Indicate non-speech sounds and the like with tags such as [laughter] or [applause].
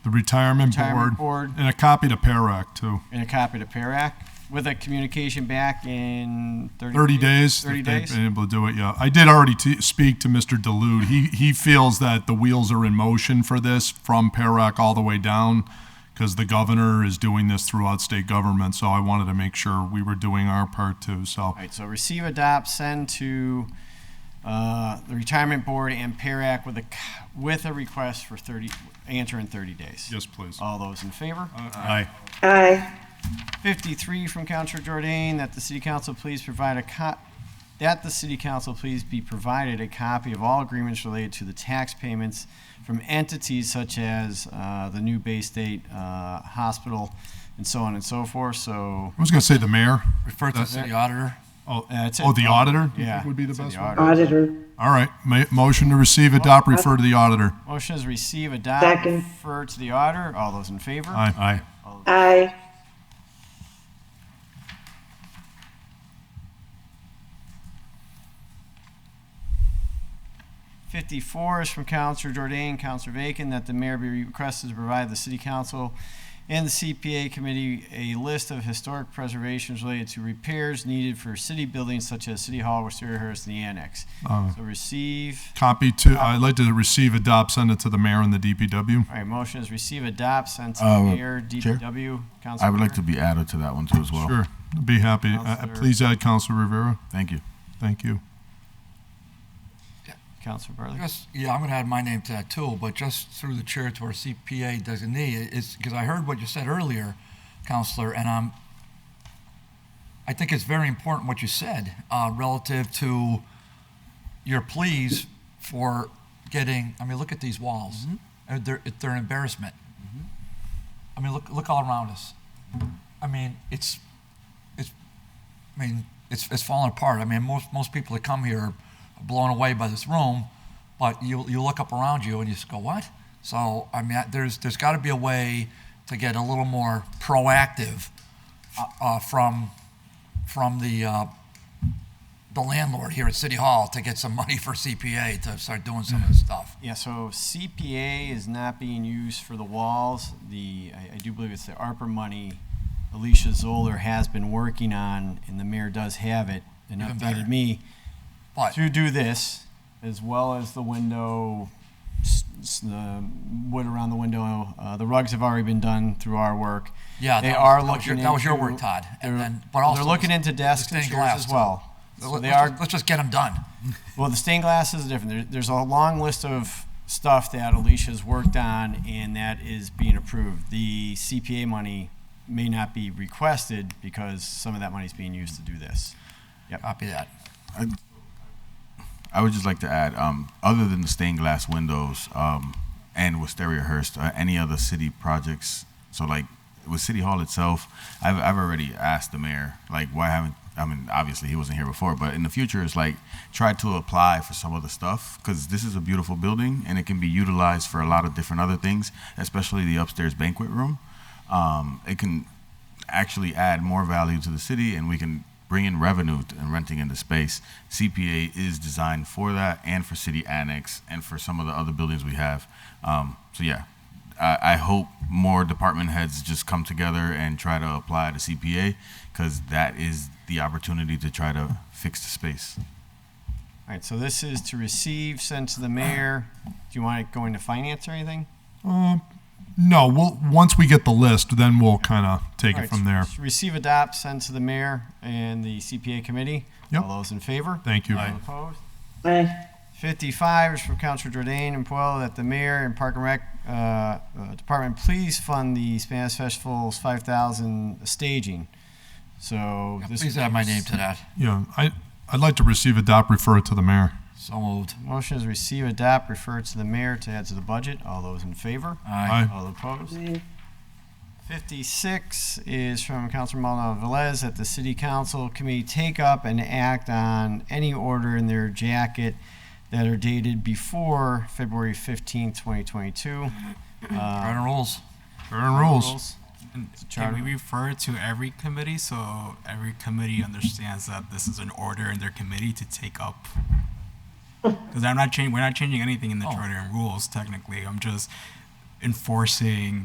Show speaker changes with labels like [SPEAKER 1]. [SPEAKER 1] the retirement
[SPEAKER 2] Retirement
[SPEAKER 1] board,
[SPEAKER 2] board.
[SPEAKER 1] and a copy to Parac too.
[SPEAKER 2] and a copy to PERAC with a communication back in 30,
[SPEAKER 1] 30 days.
[SPEAKER 2] Thirty
[SPEAKER 1] if they've
[SPEAKER 2] days.
[SPEAKER 1] Been able to do it, yeah. I did already t- speak to Mr. Delude. He, he feels that the wheels are in motion for this from Parac all the way down because the governor is doing this throughout state government. So I wanted to make sure we were doing our part too. So
[SPEAKER 2] All right, so receive, adopt, send to uh, the retirement board and PERAC with a, c- with a request for 30, answer in 30 days.
[SPEAKER 1] yes, please.
[SPEAKER 2] All those in favor?
[SPEAKER 1] Aye.
[SPEAKER 3] aye,
[SPEAKER 2] 53 from Counselor Jordan, that the city council please provide a co, that the city council please be provided a copy of all agreements related to the tax payments from entities such as uh, the new Bay State uh, Hospital and so on and so forth, so.
[SPEAKER 1] I was going to say the mayor.
[SPEAKER 4] Refer to the city auditor.
[SPEAKER 1] Oh,
[SPEAKER 2] uh, it's-
[SPEAKER 1] oh the auditor? you
[SPEAKER 2] Yeah,
[SPEAKER 1] think Would be the
[SPEAKER 2] it's in
[SPEAKER 1] best
[SPEAKER 2] the
[SPEAKER 1] one.
[SPEAKER 2] auditor.
[SPEAKER 3] auditor,
[SPEAKER 1] All right. Ma- motion to receive, adopt, refer to the auditor.
[SPEAKER 2] Motion is receive, adopt.
[SPEAKER 3] Second.
[SPEAKER 2] Refer to the auditor. All those in favor?
[SPEAKER 1] Aye. Aye.
[SPEAKER 3] aye,
[SPEAKER 2] Fifty-four is from Counselor Jordan, Counselor Bacon, that the mayor be requested to provide the city council and the CPA committee a list of historic preservations related to repairs needed for city buildings such as City Hall, Wisteria-Hurst, and the Annex.
[SPEAKER 5] Um,
[SPEAKER 2] So receive,
[SPEAKER 1] Copy to, I'd like to receive, adopt, send it to the mayor and the DPW.
[SPEAKER 2] all right, motion is receive, adopt, send to
[SPEAKER 5] Uh,
[SPEAKER 2] mayor,
[SPEAKER 5] Chair?
[SPEAKER 2] DPW, Counselor.
[SPEAKER 5] I would like to
[SPEAKER 2] Rivera.
[SPEAKER 5] be added to that one too as well.
[SPEAKER 1] Sure. Be happy. Uh,
[SPEAKER 2] Oh. Counselor-
[SPEAKER 1] please add Council Rivera.
[SPEAKER 5] Thank you.
[SPEAKER 1] Thank you.
[SPEAKER 2] Counselor Bartley.
[SPEAKER 4] Just, yeah, I'm going to add my name to that too, but just through the chair to our CPA designee, it's, because I heard what you said earlier, Counselor, and I'm, I think it's very important what you said uh, relative to your pleas for getting, I mean, look at these walls. Uh, They're, it- they're an embarrassment. I mean, look, look all around us. I mean, it's, it's, I mean, it's, it's falling apart. I mean, most, most people that come here are blown away by this room, but you, you look up around you and you just go, what? So, I mean, I- there's, there's got to be a way to get a little more proactive uh, uh, from, from the, uh, the landlord here at City Hall to get some [laughs] money for CPA to start doing some of this stuff.
[SPEAKER 2] Yeah, so CPA is not being used for the walls. The, I, I do believe it's the ARPA money Alicia Zoller has been working on, and the mayor does have it, and
[SPEAKER 4] Even better.
[SPEAKER 2] updated me
[SPEAKER 4] But
[SPEAKER 2] to do this, as well as the window, s- s- the wood around the window. Uh, the rugs have already been done through our work.
[SPEAKER 4] Yeah,
[SPEAKER 2] They
[SPEAKER 4] that was-
[SPEAKER 2] are
[SPEAKER 4] that was your-
[SPEAKER 2] looking
[SPEAKER 4] that was your
[SPEAKER 2] into-
[SPEAKER 4] work, Todd. And
[SPEAKER 2] they're-
[SPEAKER 4] then- but also
[SPEAKER 2] They're looking
[SPEAKER 4] the-
[SPEAKER 2] into
[SPEAKER 4] the
[SPEAKER 2] desks and
[SPEAKER 4] stained
[SPEAKER 2] chairs as
[SPEAKER 4] glass, too.
[SPEAKER 2] well. So
[SPEAKER 4] let-
[SPEAKER 2] they
[SPEAKER 4] let's
[SPEAKER 2] are
[SPEAKER 4] just- let's just get them done.
[SPEAKER 2] Well, the stained glass is different. There, there's a long list of stuff that Alicia's worked on and that is being approved. The CPA money may not be requested because some of that money is being used to do this.
[SPEAKER 4] Copy that.
[SPEAKER 5] I would just like to add, um, other than the stained glass windows um, and Wisteria Hearst, uh, any other city projects? So, like with City Hall itself, I've, I've already asked the mayor, like, why haven't I mean, obviously he wasn't here before, but in the future, it's like try to apply for some of the stuff because this is a beautiful building and it can be utilized for a lot of different other things, especially the upstairs banquet room. Um, it can actually add more value to the city and we can bring in revenue t- and renting into space. CPA is designed for that and for city annex and for some of the other buildings we have. Um, so yeah, I, I hope more department heads just come together and try to apply to CPA because that is the opportunity to try to fix the space.
[SPEAKER 2] All right, so this is to receive, send to the mayor. Do you want it going to finance or anything?
[SPEAKER 1] Um, No, we'll, once we get the list, then we'll kind of take
[SPEAKER 2] All
[SPEAKER 1] it
[SPEAKER 2] right,
[SPEAKER 1] from there.
[SPEAKER 2] s- Receive, adopt, send to the mayor and the CPA committee.
[SPEAKER 1] Yep.
[SPEAKER 2] All those in favor?
[SPEAKER 1] Thank you.
[SPEAKER 2] All opposed?
[SPEAKER 3] aye,
[SPEAKER 2] 55 is from Councilor Jordan and Puelo that the mayor and Park and Rec uh, uh, Department please fund the Spanish Festival's 5,000 staging. So this
[SPEAKER 4] Please add my name to that.
[SPEAKER 1] Yeah, I, I'd like to receive, adopt, refer it to the mayor.
[SPEAKER 4] So moved.
[SPEAKER 2] Motion is receive, adopt, refer to the mayor to add to the budget. All those in favor?
[SPEAKER 1] Aye.
[SPEAKER 2] All opposed?
[SPEAKER 3] aye,
[SPEAKER 2] 56 is from Councilor Maldonado Velez that the city council committee take up and act on any order in their jacket that are dated before February 15, 2022.
[SPEAKER 4] Right on rules.
[SPEAKER 1] Burn rules.
[SPEAKER 6] And
[SPEAKER 2] charter.
[SPEAKER 6] Can we refer to every committee so every committee understands that this is an order in their committee to take up? Because I'm not changing. We're not changing anything in the
[SPEAKER 4] Oh.
[SPEAKER 6] charter and rules technically. I'm just enforcing